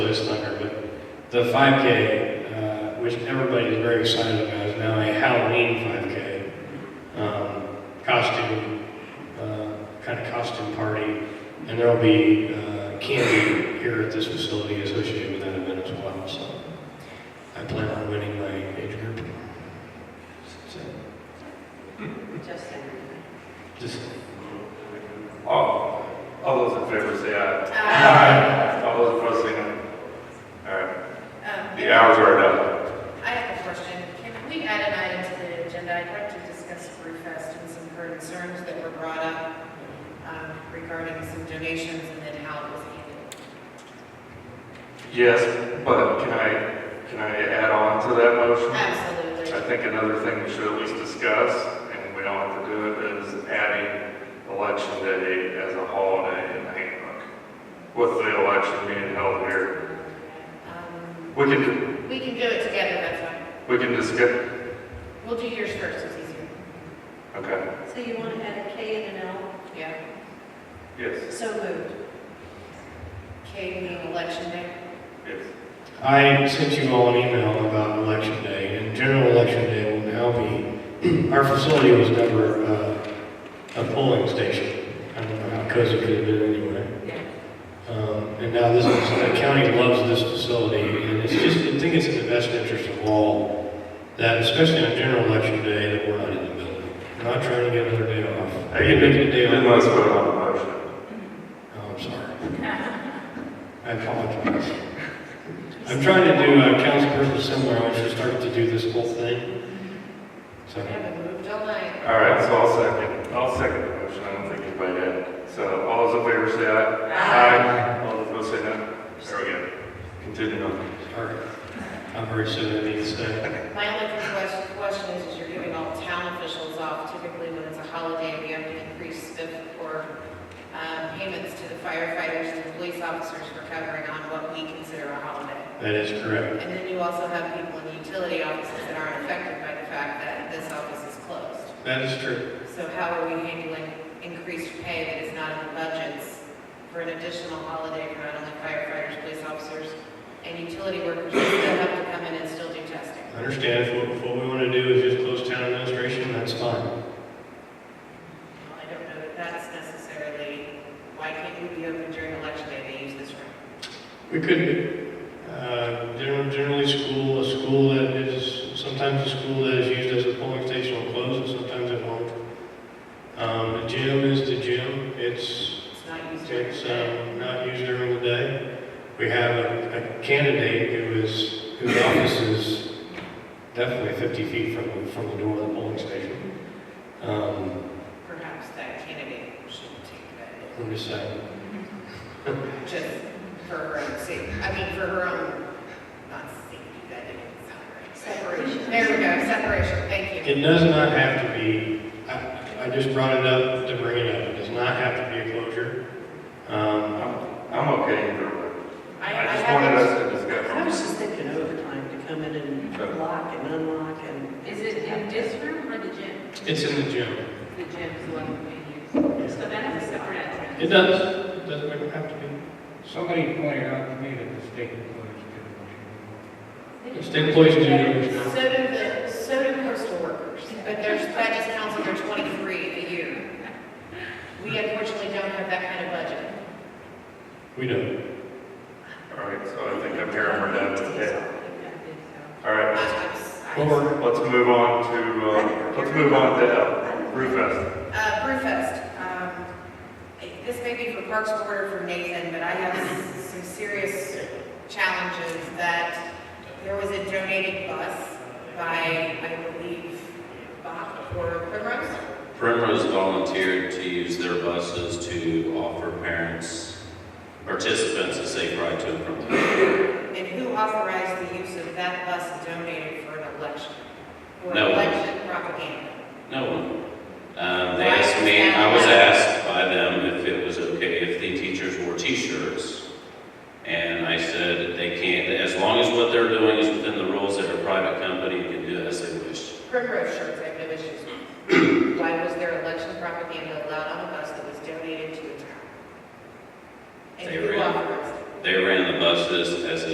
the 5K, uh, which everybody is very excited about, is now a Halloween 5K um, costume, uh, kind of costume party, and there'll be uh, candy here at this facility associated with that event as well. So I plan on winning my age group. So, Justin. just All, Oh, all those in favor say aye. Uh, All those opposed say no. All right, the hours are done. um, I have a question. Can we add an item to the agenda? I'd like to discuss Brew Fest and some concerns that were brought up um, regarding some donations and then how it was handled. Yes, but can I, can I add on to that motion? I Absolutely. think another thing we should at least discuss, and we don't have to do it, is adding election day as a holiday in the handbook. With the election being held here, Um, we can, We can do it together, that's fine. we can just get, We'll do yours first, it's easier. okay. So you want to add a K and an L? Yeah. Yes, So moved. K being election day. yes. I sent you all an email about election day, and general election day will now be, our facility was never uh, a polling station. I don't know how cozy it could have been anyway. Yeah. Um, And now this is, the county loves this facility, and it's just, I think it's in the best interest of all, that especially on general election day, that we're not in the building. We're not trying to get another day off. Hey, you Making didn't, a day didn't off. let us put it on the motion. Oh, I'm sorry. I apologize. I'm trying to do uh, a councilperson seminar, I should start to do this whole thing. So, We haven't moved all night. All right, so I'll second, I'll second the motion, I don't think anybody did. So all those in favor say aye. Aye. All those opposed say no. There we go. Continue on. sorry. I'm very sorry, I need to say. My only question- question is, is you're giving all town officials off typically when it's a holiday, we have to increase spiff or um, payments to the firefighters, to the police officers for covering on what we consider a holiday. That is correct. And then you also have people in utility offices that aren't affected by the fact that this office is closed. That is true. So how are we handling increased pay that is not in the budgets for an additional holiday for not only firefighters, police officers, and utility workers who still have to come in and still do testing? I understand, if what, if what we want to do is just close town administration, that's fine. Well, I don't know that that's necessarily, why can't we be open during election day, they use this room? We could, be. uh, generally, generally school, a school that is, sometimes a school that is used as a polling station will close, and sometimes it won't. Um, a gym is the gym, it's, It's not used during It's the day. um, not used during the day. We have a a candidate who is, whose office is definitely 50 feet from, the- from the door of the polling station. Um, Perhaps that candidate shouldn't take that, I'm just saying, just for her own safety, I mean, for her own, not safety, that didn't sound right. Separation. There we go, separation, thank you. it does not have to be, I, I just brought it up to bring it up, it does not have to be a closure. Um, I'm, I'm okay either way. I- I just I wanted haven't- us to discuss. I was just thinking overtime to come in and Sure. lock and unlock and. Is it in this room or the gym? It's in the gym. The gym is the one we use. So that is a separate entrance. It does, it doesn't have to be. Somebody pointed out to me that the state employees did it. State employees do it. So do the, so do postal workers, but there's, that just counts under 23 a year. We unfortunately don't have that kind of budget. We don't. All right, so I think I'm here and we're done today. Yeah. All right, I- I- Or let's move on to, uh, let's move on to L, Brewfest. Uh, Brewfest, um, it- this may be for Parks Board or for Nathan, but I have some serious challenges that there was a donated bus by, I believe, Bach or Primrose. Primrose volunteered to use their buses to offer parents, participants a safe ride to and from the. And who authorized the use of that bus donated for an election? Or No one. election propaganda? No one. Um, they asked me, I was asked by them if it was okay if the teachers wore t-shirts. And I said, they can't, as long as what they're doing is within the rules that a private company can do as they wish. Primrose shirts, I have no issues with. Why was there election propaganda allowed on a bus that was donated to a town? And They who ran- authorized it? They ran the buses as